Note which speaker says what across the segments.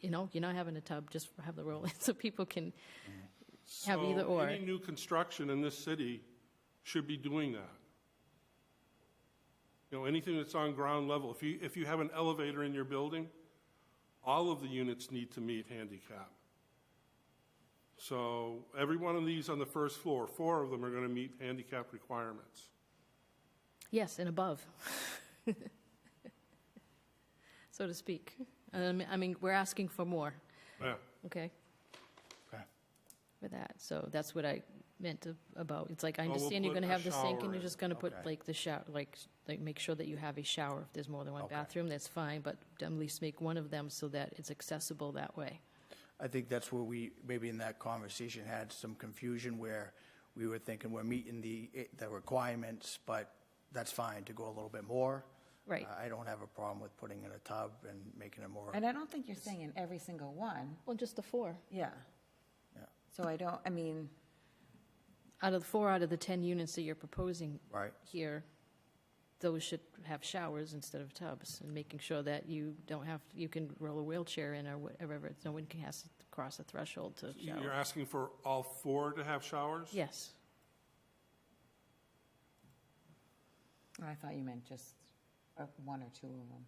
Speaker 1: you know, you're not having a tub, just have the roll-in, so people can have
Speaker 2: So
Speaker 1: either or.
Speaker 2: Any new construction in this city should be doing that. You know, anything that's on ground level, if you, if you have an elevator in your building, all of the units need to meet handicap. So every one of these on the first floor, four of them are going to meet handicap requirements.
Speaker 1: Yes, and above, so to speak. Um, I mean, we're asking for more,
Speaker 2: Yeah.
Speaker 1: okay,
Speaker 3: Okay.
Speaker 1: for that. So that's what I meant to- about, it's like, I
Speaker 2: Oh, we'll
Speaker 1: understand you're
Speaker 2: put
Speaker 1: going to
Speaker 2: a
Speaker 1: have the sink,
Speaker 2: shower
Speaker 1: and you're
Speaker 2: in.
Speaker 1: just going to put
Speaker 3: Okay.
Speaker 1: like the shower, like, like, make sure that you have a shower. If there's more than one
Speaker 3: Okay.
Speaker 1: bathroom, that's fine, but at least make one of them so that it's accessible that way.
Speaker 3: I think that's where we, maybe in that conversation, had some confusion where we were thinking we're meeting the, the requirements, but that's fine to go a little bit more. Uh,
Speaker 1: Right.
Speaker 3: I don't have a problem with putting in a tub and making it more,
Speaker 4: And I don't think you're saying in every single one,
Speaker 1: Well, just the four.
Speaker 4: yeah.
Speaker 3: Yeah.
Speaker 4: So I don't, I mean,
Speaker 1: Out of, four out of the 10 units that you're proposing
Speaker 3: right?
Speaker 1: here, those should have showers instead of tubs, and making sure that you don't have, you can roll a wheelchair in or whatever, it's- no one can has to cross a threshold to
Speaker 2: You're
Speaker 1: shower.
Speaker 2: asking for all four to have showers?
Speaker 1: Yes,
Speaker 4: I thought you meant just uh, one or two of them.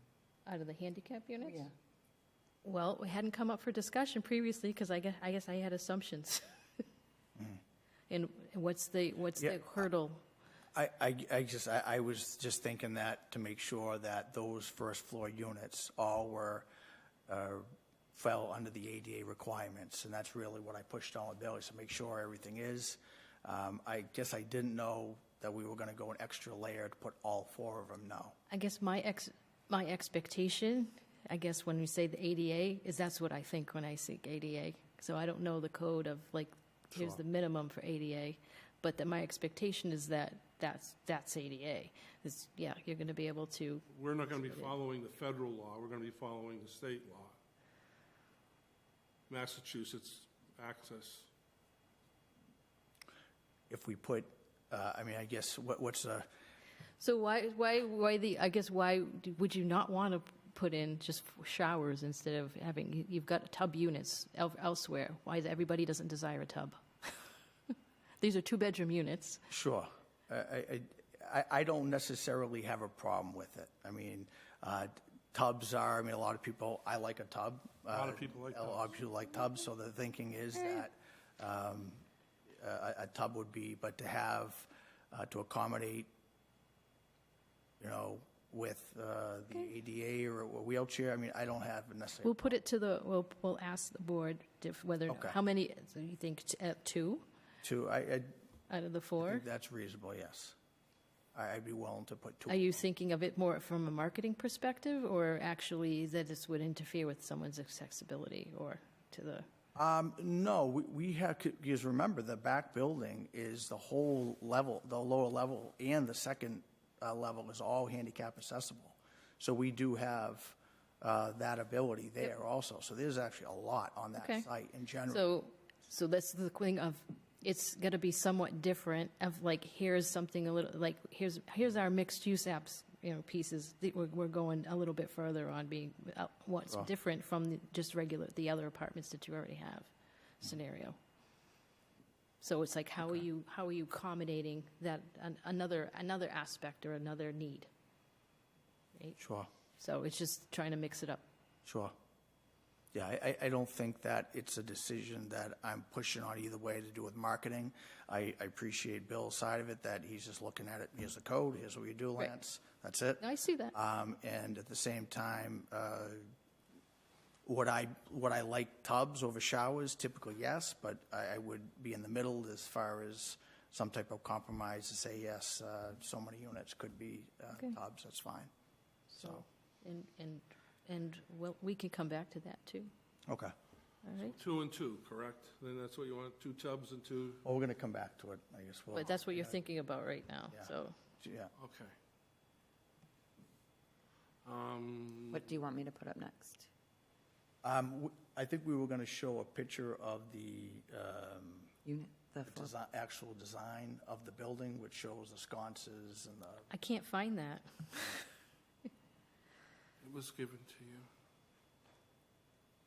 Speaker 1: out of the handicap units?
Speaker 4: Yeah.
Speaker 1: Well, it hadn't come up for discussion previously, because I guess, I guess I had assumptions. And what's the, what's
Speaker 3: Yeah.
Speaker 1: the hurdle?
Speaker 3: I, I, I just, I, I was just thinking that to make sure that those first floor units all were, uh, fell under the ADA requirements, and that's really what I pushed on with Billy, so make sure everything is. Um, I guess I didn't know that we were gonna go an extra layer to put all four of them now.
Speaker 1: I guess my ex, my expectation, I guess when we say the ADA, is that's what I think when I see ADA. So I don't know the code of like, here's the minimum for ADA, but that my expectation is that that's, that's ADA. Is, yeah, you're gonna be able to,
Speaker 2: We're not going to be following the federal law, we're going to be following the state law. Massachusetts access.
Speaker 3: If we put, uh, I mean, I guess, what, what's a,
Speaker 1: so why, why, why the, I guess why do- would you not wanna put in just showers instead of having, you- you've got tub units el- elsewhere. Why is, everybody doesn't desire a tub? These are two-bedroom units.
Speaker 3: Sure. I, I, I- I don't necessarily have a problem with it. I mean, uh, tubs are, I mean, a lot of people, I like a tub. A
Speaker 2: lot of people like
Speaker 3: A lot of people like tubs, so the thinking is that um, a, a tub would be, but to have, uh, to accommodate, you know, with uh, the ADA or a wheelchair, I mean, I don't have necessarily.
Speaker 1: We'll put it to the, we'll, we'll ask the board if whether,
Speaker 3: Okay.
Speaker 1: how many, so you think t- uh, two
Speaker 3: Two, I, I
Speaker 1: out of the
Speaker 3: think
Speaker 1: four?
Speaker 3: that's reasonable, yes. I- I'd be willing to put two.
Speaker 1: Are you thinking of it more from a marketing perspective or actually that this would interfere with someone's accessibility or to the,
Speaker 3: Um, no, we, we have, because remember, the back building is the whole level, the lower level and the second uh, level is all handicap accessible. So we do have, uh, that ability there also. So there's actually a lot on
Speaker 1: Okay.
Speaker 3: that site in general.
Speaker 1: so, so that's the thing of, it's gonna be somewhat different of like, here's something a little, like, here's, here's our mixed use apps, you know, pieces. that We're, we're going a little bit further on being, uh, what's different from the- just regular, the other apartments that you already have scenario. So it's like, how are you, how are you accommodating that, an- another, another aspect or another need?
Speaker 3: Sure,
Speaker 1: So it's just trying to mix it up.
Speaker 3: sure. Yeah, I, I, I don't think that it's a decision that I'm pushing on either way to do with marketing. I, I appreciate Bill's side of it, that he's just looking at it, here's the code, here's what you do,
Speaker 1: Right.
Speaker 3: Lance, that's it.
Speaker 1: I see that.
Speaker 3: Um, and at the same time, uh, would I, would I like tubs over showers? Typically, yes, but I, I would be in the middle as far as some type of compromise to say, yes, uh, so many units could be, uh,
Speaker 1: Okay.
Speaker 3: tubs, that's fine. So,
Speaker 1: And, and, and well, we can come back to that too,
Speaker 3: okay.
Speaker 1: all right?
Speaker 2: Two and two, correct? Then that's what you want, two tubs and two,
Speaker 3: Well, we're gonna come back to it, I guess, we'll,
Speaker 1: But that's what you're thinking about right now,
Speaker 3: Yeah.
Speaker 1: so.
Speaker 3: yeah.
Speaker 2: okay. Um,
Speaker 4: What do you want me to put up next?
Speaker 3: Um, w- I think we were gonna show a picture of the, um,
Speaker 4: Unit, the
Speaker 3: the
Speaker 4: floor.
Speaker 3: desi actual design of the building, which shows the sconces and the
Speaker 1: I can't find that.
Speaker 2: It was given to you.